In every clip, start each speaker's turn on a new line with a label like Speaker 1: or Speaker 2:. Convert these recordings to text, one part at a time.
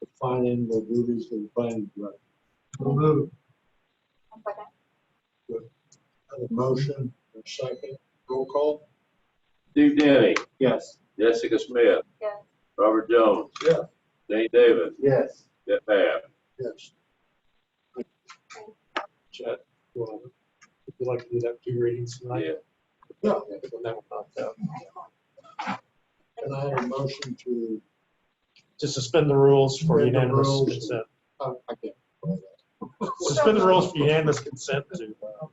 Speaker 1: defining the duties of the planning director.
Speaker 2: One second.
Speaker 1: Have a motion, a second, roll call?
Speaker 3: Steve Denny,
Speaker 1: Yes.
Speaker 3: Jessica Smith.
Speaker 2: Yes.
Speaker 3: Robert Jones.
Speaker 1: Yeah.
Speaker 3: Dane Davis,
Speaker 1: Yes.
Speaker 3: Jeff Babb.
Speaker 1: Yes. Chad, well, would you like to do that two readings
Speaker 3: Yeah.
Speaker 1: Yeah. And I have a motion to,
Speaker 4: to suspend the rules for
Speaker 1: Suspend the
Speaker 4: unanimous
Speaker 1: rules.
Speaker 4: consent.
Speaker 1: oh, I can't.
Speaker 4: Suspend the rules for unanimous consent to uh,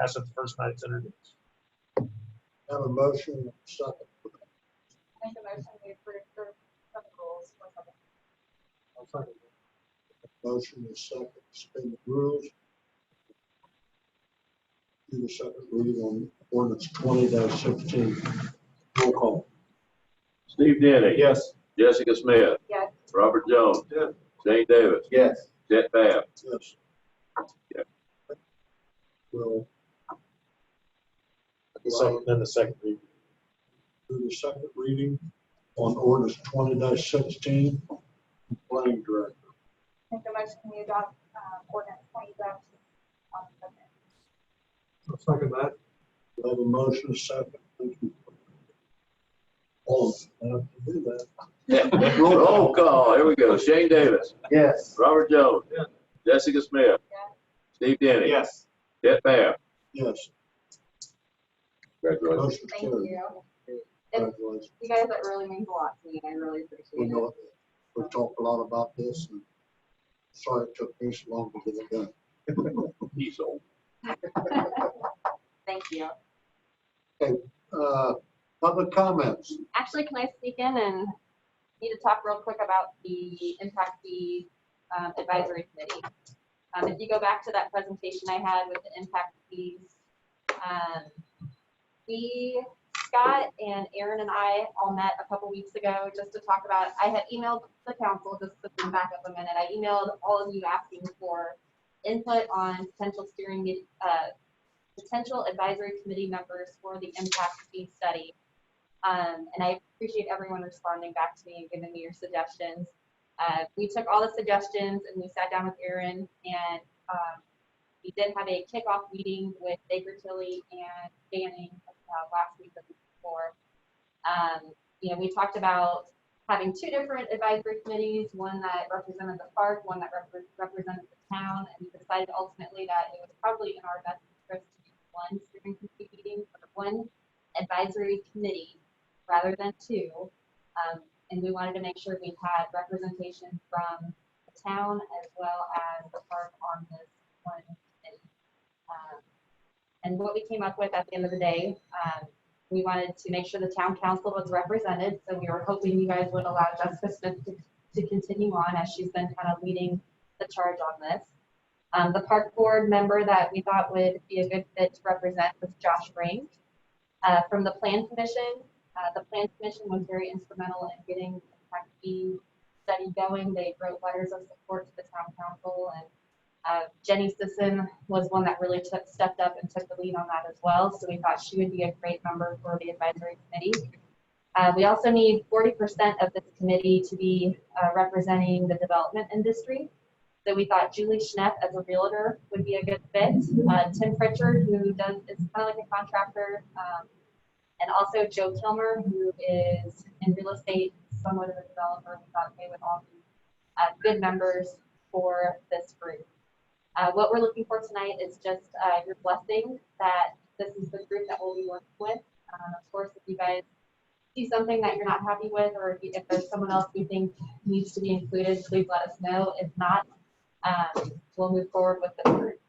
Speaker 4: pass it the first night it's introduced.
Speaker 1: Have a motion, second,
Speaker 2: Make a motion to approve for some rules. One second.
Speaker 1: motion is second, suspend the rules. Do the second reading on ordinance twenty sixteen. Roll call.
Speaker 3: Steve Denny.
Speaker 1: Yes.
Speaker 3: Jessica Smith.
Speaker 2: Yes.
Speaker 3: Robert Jones.
Speaker 1: Yeah.
Speaker 3: Dane Davis,
Speaker 1: Yes.
Speaker 3: Jeff Babb.
Speaker 1: Yes.
Speaker 3: Yeah.
Speaker 1: Well.
Speaker 4: So then the second reading.
Speaker 1: do the second reading on ordinance twenty sixteen, planning director.
Speaker 2: Make a motion to adopt um, ordinance twenty dash. um, second.
Speaker 1: Second that. We have a motion, a second. Thank you. All, I have to do that.
Speaker 3: Roll call, here we go. Shane Davis.
Speaker 1: Yes.
Speaker 3: Robert Jones.
Speaker 1: Yeah.
Speaker 3: Jessica Smith.
Speaker 2: Yes.
Speaker 3: Steve Denny.
Speaker 1: Yes.
Speaker 3: Jeff Babb.
Speaker 1: Yes.
Speaker 3: Congratulations.
Speaker 1: Motion
Speaker 2: Thank
Speaker 1: carried.
Speaker 2: you.
Speaker 1: Congratulations.
Speaker 2: You guys, that really means a lot to me. I really
Speaker 1: We
Speaker 2: appreciate it.
Speaker 1: know, we talked a lot about this and sorry it took me so long to get it done.
Speaker 3: He's old.
Speaker 2: Thank you.
Speaker 1: Uh, public comments.
Speaker 2: Actually, can I sneak in and need to talk real quick about the impact fee um, advisory committee? Um, If you go back to that presentation I had with the impact fees, um, we, Scott and Aaron and I all met a couple weeks ago just to talk about, I had emailed the council, just to come back up a minute, I emailed all of you asking for input on potential steering, me- uh, potential advisory committee members for the impact fee study. Um, and I appreciate everyone responding back to me and giving me your suggestions. Uh, we took all the suggestions and we sat down with Erin and, um, we did have a kickoff meeting with Baker Tilly and Banning, uh, last week or the week before. Um, you know, we talked about having two different advisory committees, one that represented the park, one that repre- represented the town, and we decided ultimately that it was probably in our best interest to do one steering committee meeting or one advisory committee rather than two. Um, and we wanted to make sure we had representation from the town as well as the park on this one. committee. Um, And what we came up with at the end of the day, um, we wanted to make sure the town council was represented, so we were hoping you guys would allow Jessica Smith to, to continue on as she's been kind of leading the charge on this. Um, the park board member that we thought would be a good fit to represent was Josh Brink. Uh, from the plan commission, uh, the plan commission was very instrumental in getting the impact fee study going. They wrote letters of support to the town council and uh, Jenny Sisson was one that really took, stepped up and took the lead on that as well. So we thought she would be a great member for the advisory committee. Uh, we also need forty percent of this committee to be uh, representing the development industry. So we thought Julie Schnepp as a realtor would be a good fit. Uh, Tim Pritchard, who does, is kind of like a contractor, um, and also Joe Kilmer, who is in real estate, somewhat of a developer. We thought they would all be uh, good members for this group. Uh, what we're looking for tonight is just uh, your blessing that this is the group that we'll be working with. Um, of course, if you guys see something that you're not happy with, or if, you- if there's someone else you think needs to be included, please let us know. If not, um, we'll move forward with the group.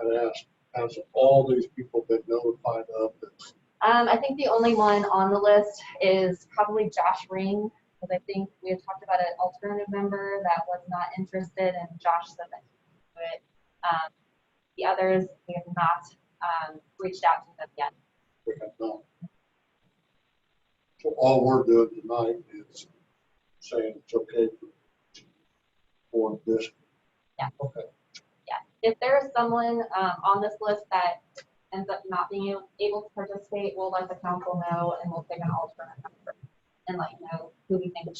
Speaker 1: And ask, has all these people been notified of this?
Speaker 2: Um, I think the only one on the list is probably Josh Ring, because I think we had talked about an alternative member that was not interested, and Josh said that he would do it. Um, the others, we have not um, reached out to them yet.
Speaker 1: We have not. So all we're doing tonight is saying it's okay for this.
Speaker 2: Yeah.
Speaker 1: Okay.
Speaker 2: If there is someone um, on this list that ends up not being able- able to participate, we'll let the council know, and we'll pick an alternate member and let you know who we think